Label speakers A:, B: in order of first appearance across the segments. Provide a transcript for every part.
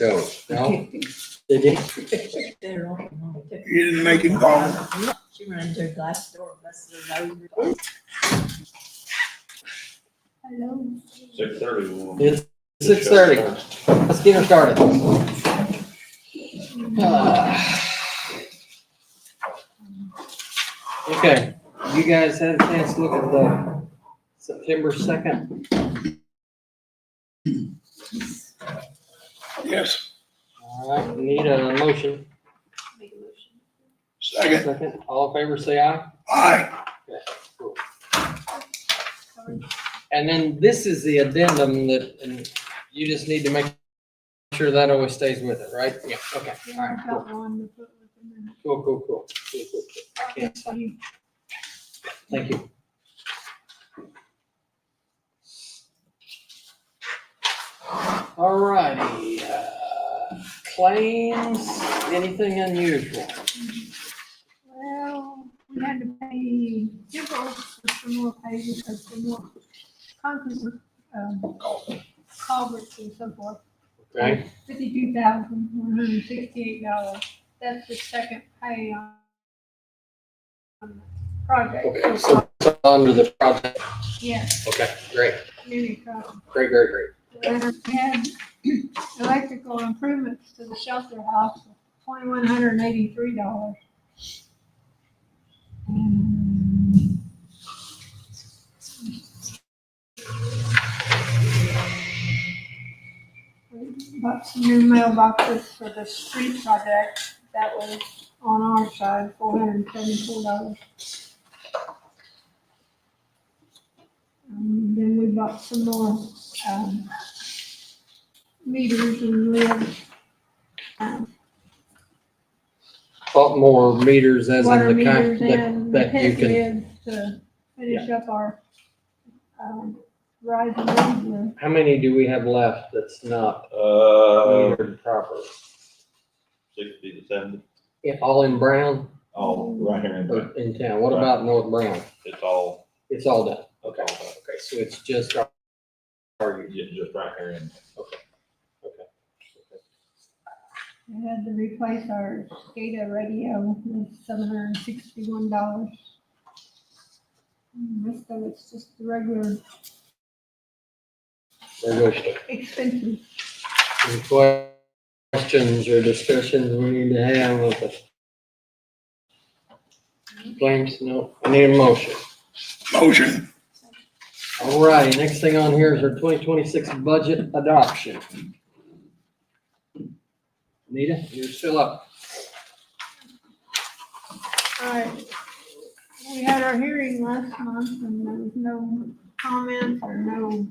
A: goes. No?
B: They did.
C: They're all wrong.
D: You didn't make him call.
C: She ran into a glass door, busted her nose. Hello.
E: Six thirty. we'll-
B: It's six thirty. Let's get her started. Ah. Okay, you guys had a chance to look at the September second.
D: Yes,
B: All right, we need a motion.
C: Make a motion.
D: second.
B: Second, all in favor, say aye.
D: Aye.
B: And then this is the addendum that, and you just need to make sure that always stays with it, right? Yeah, okay, all right,
C: Yeah, I
B: cool,
C: got one to put with them in.
B: cool, cool, cool. Cool, cool, cool. I can't sign. Thank you. All righty, uh, claims, anything unusual?
C: Well, we had to pay Gibble for some more pages, and some more concrete, um, culverts and so forth.
B: Okay,
C: Fifty-two thousand, one hundred and sixty-eight dollars. That's the second pay on on the
B: okay,
C: project.
B: so it's under the project,
C: Yeah,
B: okay, great,
C: many problems.
B: great, great, great.
C: And we had electrical improvements to the shelter house, twenty-one hundred and eighty-three dollars. Bought some new mailboxes for the street project, that was on our side, four hundred and seventy-four dollars. Um, then we bought some more, um, meters and lids. um,
B: Bought more meters as
C: Water
B: in the kind
C: meters
B: that,
C: and the
B: that you
C: head
B: can,
C: lids to finish up our, um, rise and lead room.
B: how many do we have left that's not
E: Uh,
B: metered properly?
E: sixty to seventy,
B: Yeah, All in Brown
E: all right here in
B: or
E: the,
B: in town, what about North Brown?
E: it's all,
B: It's all done,
E: okay,
B: okay, so it's just
E: yeah, just right here in.
C: We had to replace our SCADA radio with seven hundred and sixty-one dollars. Rest of it's just the regular
B: negotiable.
C: expenses.
B: Any questions or discussions we need to have with the claims? No, I need a motion.
D: Motion.
B: All righty, next thing on here is our twenty twenty-six budget adoption. Nita, you're still up.
C: Alright, we had our hearing last month and there was no comments or no.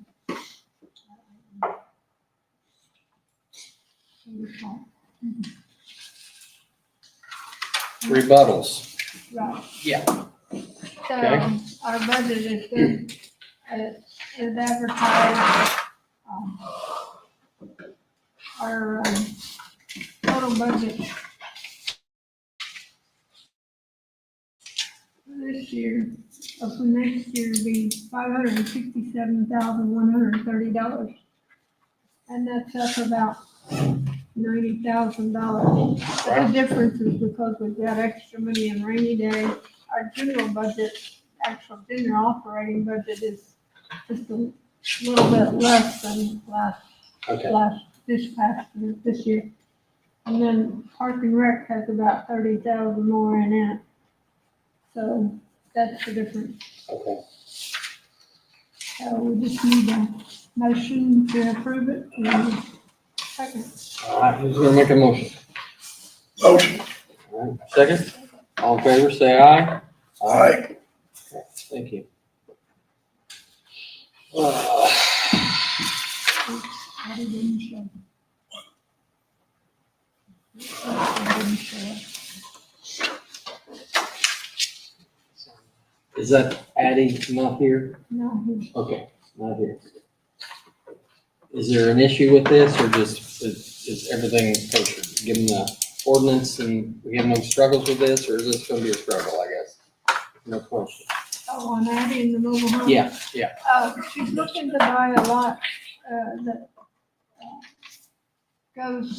B: Rebuttals.
C: Right.
B: Yeah.
C: So
B: Okay.
C: our budget is good, it is advertised. um, Our um, total budget. This year, of the next year will be five hundred and sixty-seven thousand, one hundred and thirty dollars. And that's up about ninety thousand dollars. The difference is because we've got extra money in rainy day. Our general budget, actual general operating budget is just a little bit less than last,
B: Okay,
C: last, this past, year- this year. And then Park and Rec has about thirty thousand more in it. So that's the difference.
B: okay.
C: So we just need a motion to approve it. and Second.
B: All right, who's gonna make a motion?
D: Motion.
B: All right, Second, all in favor, say aye.
D: Aye.
B: Thank you. Uh,
C: I didn't show. I didn't show.
B: Is that Addie not here?
C: No, he-
B: Okay, not here. Is there an issue with this or just is, is everything kosher? Given the ordinance and we have no struggles with this or is this gonna be a struggle, I guess? No question.
C: oh, and Addie in the mobile home.
B: Yeah, yeah.
C: Uh, she's looking to buy a lot, uh, that uh, goes